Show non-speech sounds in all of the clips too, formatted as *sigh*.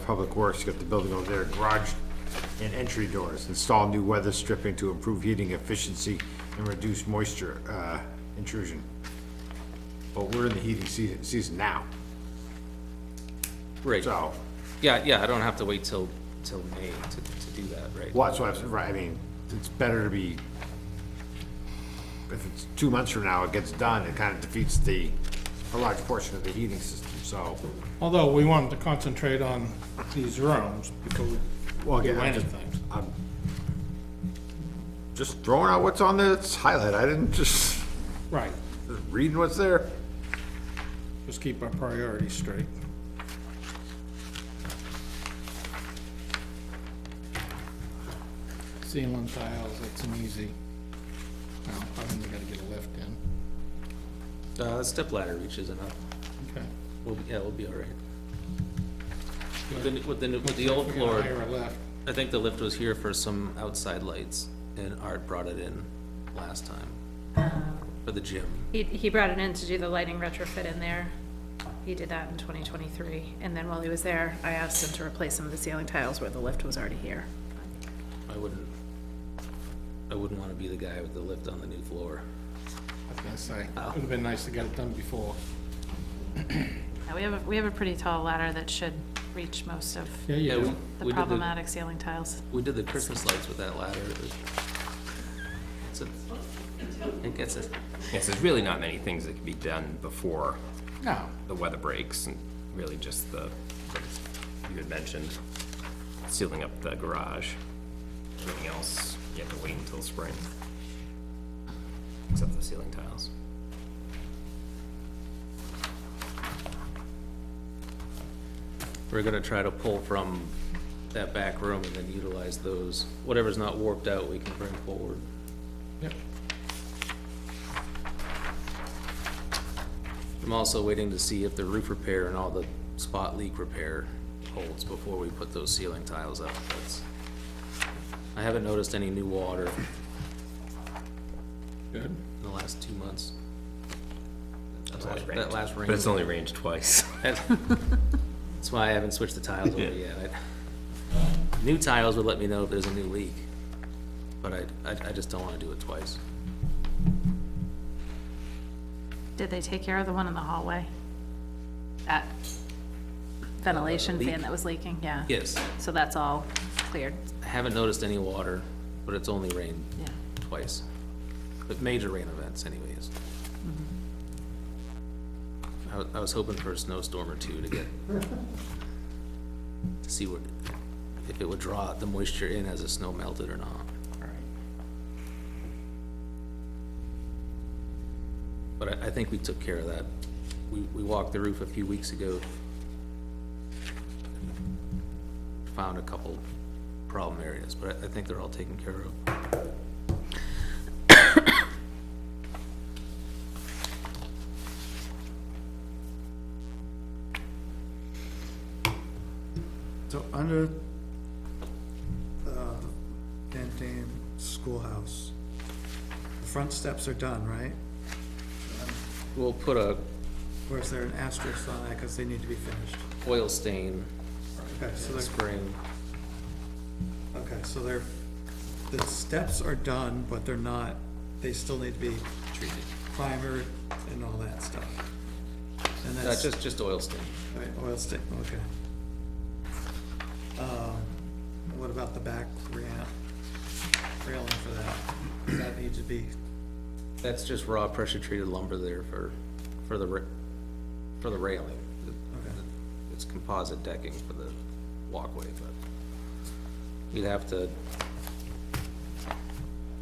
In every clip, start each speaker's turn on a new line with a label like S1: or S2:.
S1: Public Works, got the building over there, garage and entry doors, install new weather stripping to improve heating efficiency and reduce moisture, uh, intrusion. But we're in the heating season, season now,
S2: Right,
S1: so,
S2: yeah, yeah, I don't have to wait till, till May to, to do that, right?
S1: well, that's what I'm, right, I mean, it's better to be, if it's two months from now, it gets done, it kind of defeats the, a large portion of the heating system, so.
S3: Although we wanted to concentrate on these rooms before we
S1: Well,
S3: do
S1: again, I'm just-
S3: anything.
S1: just throwing out what's on this highlight, I didn't just,
S3: Right,
S1: just reading what's there.
S3: just keep our priorities straight. Ceiling tiles, that's an easy, well, I mean, we gotta get a lift in.
S2: Uh, the step ladder reaches enough,
S3: Okay.
S2: we'll, be- yeah, we'll be all right. With the, new- with the, new- with the old
S3: We
S2: floor,
S3: gotta Hire a lift.
S2: I think the lift was here for some outside lights, and Art brought it in last time for the gym.
S4: He, he brought it in to do the lighting retrofit in there. He did that in 2023, and then while he was there, I asked him to replace some of the ceiling tiles where the lift was already here.
S2: I wouldn't, I wouldn't wanna be the guy with the lift on the new floor.
S3: I was gonna say, would've been nice to get it done before.
S4: Yeah, we have, a- we have a pretty tall ladder that should reach most of
S3: Yeah, you
S2: Yeah, we-
S3: do.
S2: we
S4: the
S2: did the-
S4: problematic ceiling tiles.
S2: We did the Christmas lights with that ladder. It was- It's a, it gets a,
S5: Yes, there's really not many things that can be done before
S3: No,
S5: the weather breaks, and really just the, like you had mentioned, sealing up the garage. Everything else, you have to wait until spring. Except the ceiling tiles.
S2: we're gonna try to pull from that back room and then utilize those. Whatever's not warped out, we can bring forward.
S3: yep,
S2: I'm also waiting to see if the roof repair and all the spot leak repair holds before we put those ceiling tiles up. That's, I haven't noticed any new water
S3: good.
S2: in the last two months. That
S5: Last
S2: last-
S5: rain.
S2: That last rain.
S5: But it's only rained twice. *laughs*
S2: That's *laughs* that's why I haven't switched the tiles over yet. I- New tiles would let me know if there's a new leak, but I, I, I just don't wanna do it twice.
S4: Did they take care of the one in the hallway? That ventilation
S2: leak?
S4: fan that was leaking, yeah.
S2: Yes,
S4: So that's all cleared,
S2: I haven't noticed any water, but it's only rained
S4: yeah.
S2: twice. But major rain events anyways. I, wa- I was hoping for a snowstorm or two to get, to see what, if it would draw the moisture in as the snow melted or not. But I, I think we took care of that. We, we walked the roof a few weeks ago. Found a couple problem areas, but I, I think they're all taken care of.
S6: So under, uh, Van Dam Schoolhouse, the front steps are done, right?
S2: We'll put a
S6: Or is there an asterisk on that because they need to be finished?
S2: oil stain
S6: Okay, so they're,
S2: spring.
S6: okay, so they're, the steps are done, but they're not, they still need to be
S2: treated.
S6: primered and all that stuff. And
S2: Uh,
S6: that's,
S2: just, just oil stain.
S6: all right, oil stick, okay. Um, What about the back ramp, railing for that? Does that need to be
S2: That's just raw pressure treated lumber there for, for the, ra- for the railing. It's composite decking for the walkway, but you'd have to,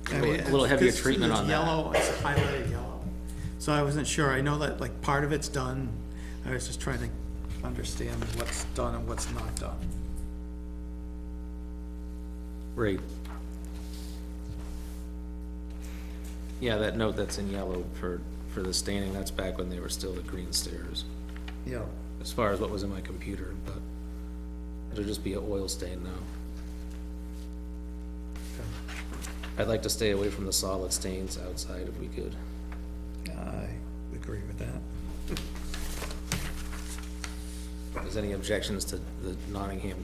S6: I
S2: little-
S6: mean,
S2: a little heavier
S6: it's-
S2: treatment
S6: it's
S2: on that.
S6: Yellow, it's highlighted yellow. So I wasn't sure. I know that like part of it's done. I was just trying to understand what's done and what's not done.
S2: right. Yeah, that note that's in yellow for, for the staining, that's back when they were still the green stairs,
S6: Yeah.
S2: as far as what was in my computer, but it'll just be an oil stain now. I'd like to stay away from the solid stains outside if we could.
S6: I agree with that.
S2: If there's any objections to the Nottingham